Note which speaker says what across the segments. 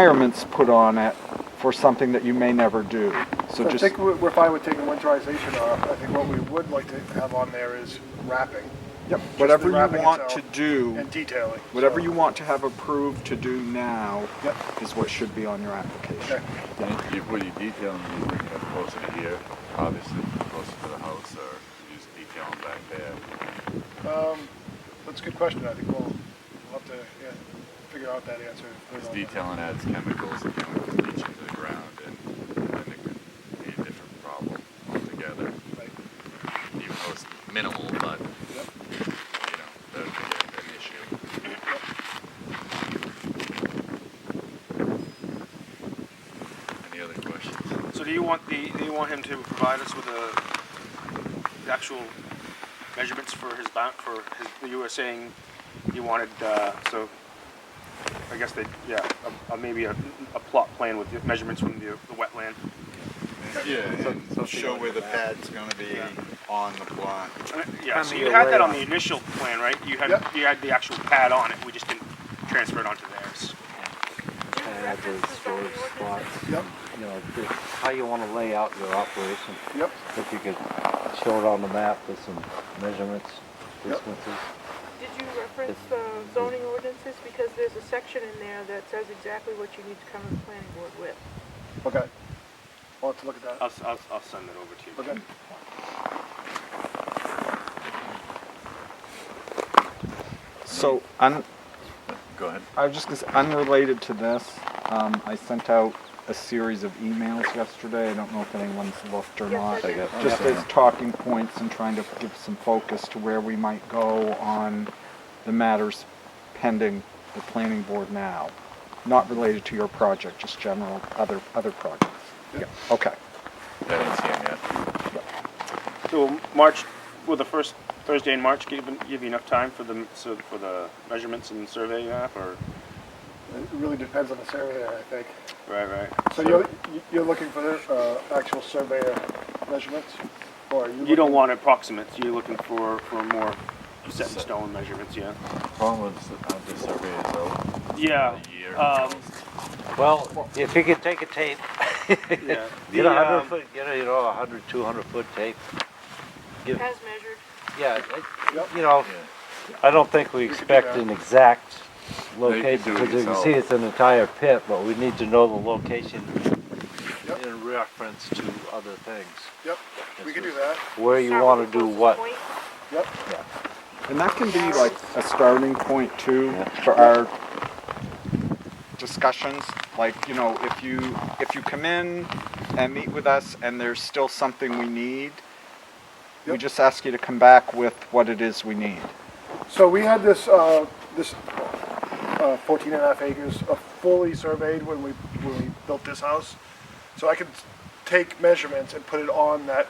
Speaker 1: requirements put on it for something that you may never do. So
Speaker 2: So I
Speaker 1: just,
Speaker 2: think we're we're fine with taking winterization off. I think what we would like to have on there is wrapping.
Speaker 1: yep,
Speaker 2: Just the
Speaker 1: whatever you
Speaker 2: wrapping
Speaker 1: want to
Speaker 2: itself
Speaker 1: do,
Speaker 2: And detailing.
Speaker 1: whatever
Speaker 2: So-
Speaker 1: you want to have approved to do now
Speaker 2: Yep.
Speaker 1: is what should be on your application.
Speaker 2: Okay.
Speaker 3: And you, what you detail them, you bring them closer to here, obviously closer to the house, or you just detail them back there.
Speaker 2: Um, that's a good question. I think we'll, we'll have to, yeah, figure out that answer. and put it
Speaker 3: Because
Speaker 2: on there.
Speaker 3: detailing adds chemicals, and chemicals leach into the ground, and then it could be a different problem altogether.
Speaker 2: Right.
Speaker 3: Even though it's minimal, but
Speaker 2: Yep.
Speaker 3: you know that would be an issue. Any other questions?
Speaker 4: So do you want the, do you want him to provide us with a, the actual measurements for his bound, for his, you were saying you wanted, uh, so I guess they, yeah, a, a, maybe a, a plot plan with the measurements from the, the wetland.
Speaker 5: Yeah,
Speaker 3: So-
Speaker 5: and show where the pad's gonna be
Speaker 4: Yeah.
Speaker 5: on the plot.
Speaker 4: Uh, Yeah, so
Speaker 1: And
Speaker 4: you
Speaker 1: the
Speaker 4: had that on
Speaker 1: array.
Speaker 4: the initial plan, right? You had,
Speaker 2: Yep.
Speaker 4: you had the actual pad on it, we just didn't transfer it onto theirs.
Speaker 6: And add those storage spots,
Speaker 2: Yep,
Speaker 6: you know, just how you want to lay out your operation.
Speaker 2: yep,
Speaker 6: If you could show it on the map with some measurements,
Speaker 2: Yep.
Speaker 6: distances.
Speaker 7: Did you reference the zoning ordinances? Because there's a section in there that says exactly what you need to come to the planning board with.
Speaker 2: okay. We'll have to look at
Speaker 4: I'll,
Speaker 2: that.
Speaker 4: s- I'll, s- I'll send it over to you.
Speaker 2: Okay.
Speaker 1: So on,
Speaker 3: Go ahead.
Speaker 1: I was just gonna say, unrelated to this, um, I sent out a series of emails yesterday. I don't know if anyone's looked or
Speaker 7: Yes, I
Speaker 1: not.
Speaker 7: did. I got
Speaker 1: Just as talking points and trying to give some focus to where we might go on the matters pending the planning board now. Not related to your project, just general other, other projects. Yeah, okay.
Speaker 3: I didn't see him yet.
Speaker 4: So March, well, the first Thursday in March, give, give you enough time for the, so for the measurements and survey map, or,
Speaker 2: It really depends on the surveyor, I think.
Speaker 4: right, right?
Speaker 2: So you're, you're looking for the, uh, actual surveyor measurements? Or are you?
Speaker 4: You don't
Speaker 2: looking-
Speaker 4: want approximates, you're looking for, for more set in stone measurements, yeah?
Speaker 3: Problem is how the survey is out
Speaker 4: Yeah,
Speaker 3: a year.
Speaker 4: um,
Speaker 6: Well, if you could take a tape,
Speaker 4: yeah.
Speaker 6: get a
Speaker 4: The,
Speaker 6: hundred
Speaker 4: um,
Speaker 6: foot, get a, you know, a hundred, two hundred foot tape. Give,
Speaker 7: As measured,
Speaker 6: yeah, it-
Speaker 2: Yep.
Speaker 6: you know,
Speaker 3: yeah.
Speaker 6: I don't think we
Speaker 2: could do
Speaker 6: expect
Speaker 2: that.
Speaker 6: an exact
Speaker 3: No, you could
Speaker 6: location,
Speaker 3: do it
Speaker 6: because you can
Speaker 3: yourself.
Speaker 6: see it's an entire pit, but we need to know the location
Speaker 2: Yep.
Speaker 6: in reference to other things.
Speaker 2: Yep, we can do that.
Speaker 6: Where you
Speaker 7: start
Speaker 6: wanna
Speaker 7: with the
Speaker 6: do
Speaker 7: closest
Speaker 6: what.
Speaker 7: point.
Speaker 2: Yep,
Speaker 1: And that can be like a starting point too for our discussions. Like, you know, if you, if you come in and meet with us and there's still something we need, we
Speaker 2: Yep.
Speaker 1: just ask you to come back with what it is we need.
Speaker 2: so we had this, uh, this, uh, fourteen and a half acres uh, fully surveyed when we, when we built this house. So I could take measurements and put it on that,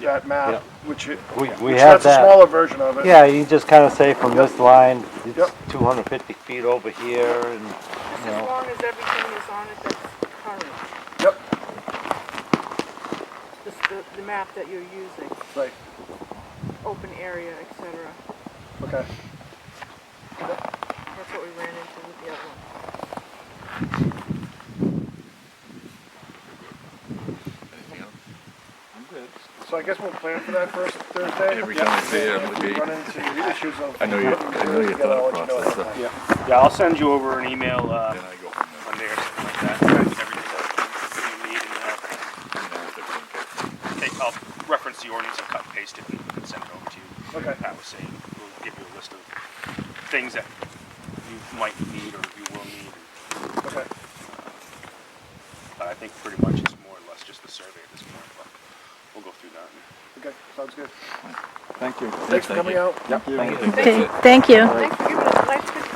Speaker 2: that
Speaker 6: Yeah.
Speaker 2: map, which it.
Speaker 6: We-
Speaker 2: which
Speaker 6: we have
Speaker 2: That's a
Speaker 6: that.
Speaker 2: smaller version of it.
Speaker 6: Yeah, you just kind of say from
Speaker 2: Yep.
Speaker 6: this line, it's
Speaker 2: Yep.
Speaker 6: two hundred fifty feet over here and,
Speaker 7: Just
Speaker 6: you
Speaker 7: as
Speaker 6: know.
Speaker 7: long as everything is on it that's current,
Speaker 2: Yep,
Speaker 7: just the, the map that you're using,
Speaker 2: right,
Speaker 7: open area, et cetera.
Speaker 2: okay.
Speaker 7: That's what we ran into with the other one.
Speaker 3: Anything else?
Speaker 2: So I guess we'll plan for that first Thursday.
Speaker 3: Every time I say it, I'm
Speaker 2: If
Speaker 3: gonna
Speaker 2: we
Speaker 3: be-
Speaker 2: Run into the issues of.
Speaker 3: I know your- I know your
Speaker 2: I'll let
Speaker 3: thought
Speaker 2: you know
Speaker 3: process.
Speaker 2: ahead of time.
Speaker 4: Yeah, I'll send you over an email, uh,
Speaker 3: Then I go home and
Speaker 4: Monday or something like that, that's everything that you need, and
Speaker 3: clean out the green
Speaker 4: I'll take, I'll reference the ordinance and cut and paste it and send it over to you.
Speaker 2: Okay.
Speaker 4: Pat was saying, we'll give you a list of things that you might need or you will need,
Speaker 2: Okay,
Speaker 4: but I think pretty much it's more or less just the survey at this point, but we'll go through that.
Speaker 2: okay, sounds good.
Speaker 1: Thank you.
Speaker 2: Thanks for
Speaker 3: thank
Speaker 2: coming
Speaker 3: you.
Speaker 2: out.
Speaker 1: Thank you.
Speaker 3: paper. That's it.
Speaker 8: Thank you.
Speaker 7: Thanks for giving